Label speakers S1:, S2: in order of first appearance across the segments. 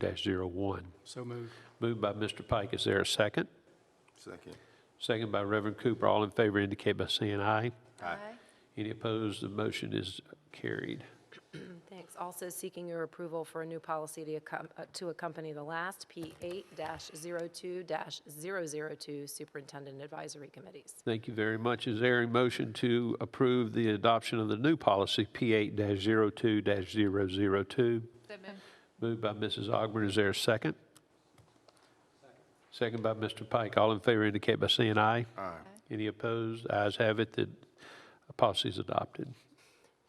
S1: 02-01.
S2: So moved.
S1: Moved by Mr. Pike, is there a second?
S3: Second.
S1: Second by Reverend Cooper, all in favor indicate by saying aye.
S3: Aye.
S1: Any opposed, the motion is carried.
S4: Thanks. Also seeking your approval for a new policy to accom- uh, to accompany the last, P8-02-002, Superintendent Advisory Committees.
S1: Thank you very much. Is there a motion to approve the adoption of the new policy, P8-02-002? Moved by Mrs. Augmiron, is there a second? Second by Mr. Pike. All in favor indicate by saying aye. Aye. Any opposed? Ayes have it, the policy is adopted.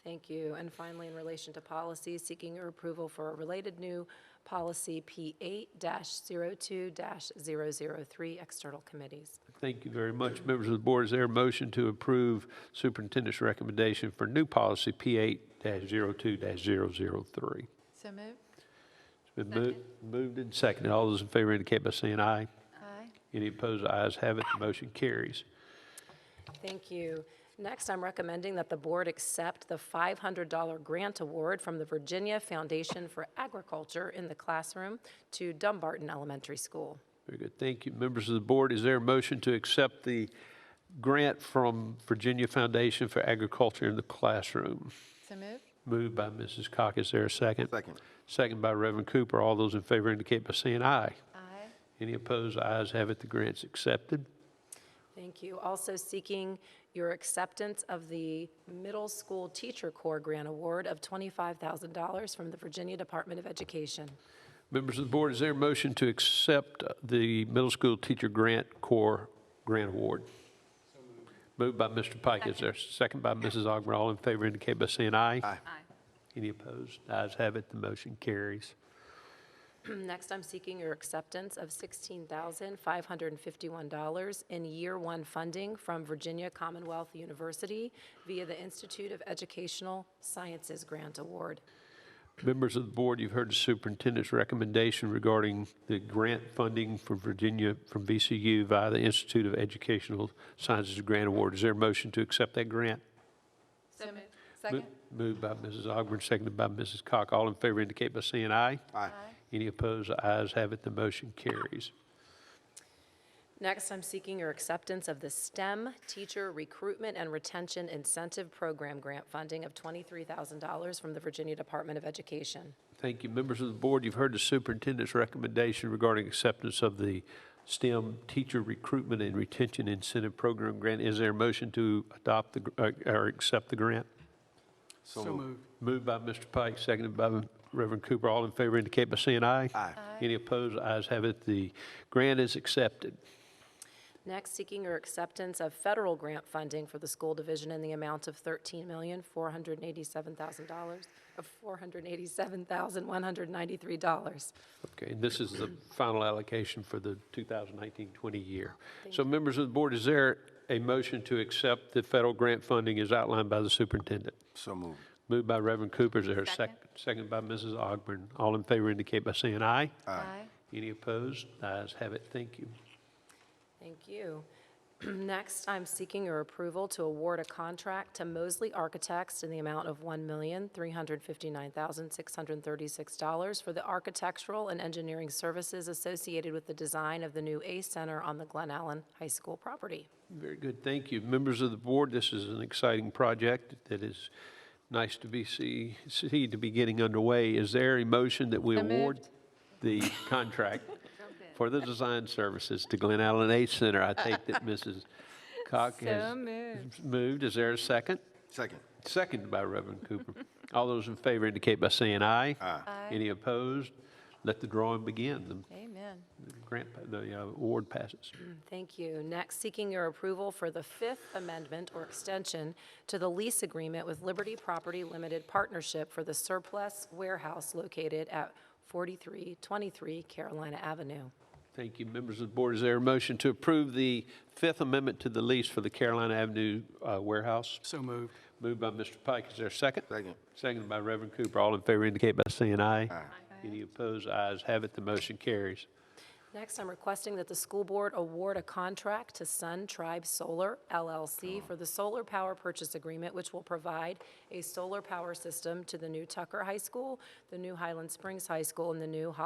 S4: Thank you. And finally, in relation to policy, seeking your approval for a related new policy, P8-02-003, External Committees.
S1: Thank you very much. Members of the board, is there a motion to approve superintendent's recommendation for new policy P8-02-003?
S5: So moved.
S1: It's been moved, moved and seconded. All those in favor indicate by saying aye.
S5: Aye.
S1: Any opposed, ayes have it, the motion carries.
S4: Thank you. Next, I'm recommending that the board accept the $500 grant award from the Virginia Foundation for Agriculture in the Classroom to Dumbarton Elementary School.
S1: Very good, thank you. Members of the board, is there a motion to accept the grant from Virginia Foundation for Agriculture in the Classroom?
S5: So moved.
S1: Moved by Mrs. Cock, is there a second?
S3: Second.
S1: Second by Reverend Cooper. All those in favor indicate by saying aye.
S5: Aye.
S1: Any opposed, ayes have it, the grant's accepted.
S4: Thank you. Also seeking your acceptance of the Middle School Teacher Corps Grant Award of $25,000 from the Virginia Department of Education.
S1: Members of the board, is there a motion to accept the middle school teacher grant core grant award? Moved by Mr. Pike, is there a second by Mrs. Augmiron? All in favor indicate by saying aye.
S3: Aye.
S1: Any opposed? Ayes have it, the motion carries.
S4: Next, I'm seeking your acceptance of $16,551 in year one funding from Virginia Commonwealth University via the Institute of Educational Sciences Grant Award.
S1: Members of the board, you've heard the superintendent's recommendation regarding the grant funding for Virginia from VCU via the Institute of Educational Sciences Grant Award. Is there a motion to accept that grant?
S5: So moved.
S1: Mo-
S5: Second.
S1: Moved by Mrs. Augmiron, seconded by Mrs. Cock. All in favor indicate by saying aye.
S3: Aye.
S1: Any opposed? The ayes have it, the motion carries.
S4: Next, I'm seeking your acceptance of the STEM Teacher Recruitment and Retention Incentive Program grant funding of $23,000 from the Virginia Department of Education.
S1: Thank you. Members of the board, you've heard the superintendent's recommendation regarding acceptance of the STEM Teacher Recruitment and Retention Incentive Program grant. Is there a motion to adopt the, gr- uh, or accept the grant?
S3: So
S2: So
S3: moved.
S2: moved.
S1: Moved by Mr. Pike, seconded by Reverend Cooper. All in favor indicate by saying aye.
S3: Aye.
S1: Any opposed? Ayes have it. The grant is accepted.
S4: Next, seeking your acceptance of federal grant funding for the school division in the amount of $13,487,000, of $487,193.
S1: Okay, and this is the final allocation for the 2019-20 year. So members of the board, is there a motion to accept the federal grant funding as outlined by the superintendent?
S3: So moved.
S1: Moved by Reverend Cooper, is there a second?
S5: Second.
S1: Second by Mrs. Ogburn. All in favor indicate by saying aye.
S5: Aye.
S1: Any opposed? Ayes have it, thank you.
S4: Thank you. Next, I'm seeking your approval to award a contract to Mosley Architects in the amount of $1,359,636 for the architectural and engineering services associated with the design of the new A Center on the Glen Allen High School property.
S1: Very good, thank you. Members of the board, this is an exciting project that is nice to be see, see to be getting underway. Is there a motion that we
S5: So
S1: award
S5: moved.
S1: the contract for the design services to Glen Allen A Center? I take that Mrs. Cock
S5: So
S1: has
S5: moved.
S1: moved. Is there a second?
S3: Second.
S1: Seconded by Reverend Cooper. All those in favor indicate by saying aye.
S5: Aye.
S1: Any opposed? Let the drawing begin. The
S5: Amen.
S1: grant, the uh, award passes.
S4: Thank you. Next, seeking your approval for the Fifth Amendment or extension to the lease agreement with Liberty Property Limited Partnership for the surplus warehouse located at 4323 Carolina Avenue.
S1: Thank you, members of the board. Is there a motion to approve the Fifth Amendment to the lease for the Carolina Avenue uh, warehouse?
S2: So moved.
S1: Moved by Mr. Pike. Is there a second?
S3: Second.
S1: Seconded by Reverend Cooper. All in favor indicate by saying aye.
S3: Aye.
S1: Any opposed? Ayes have it. The motion carries.
S4: Next, I'm requesting that the school board award a contract to Sun Tribe Solar LLC for the solar power purchase agreement, which will provide a solar power system to the new Tucker High School, the new Highland Springs High School, and the new Holly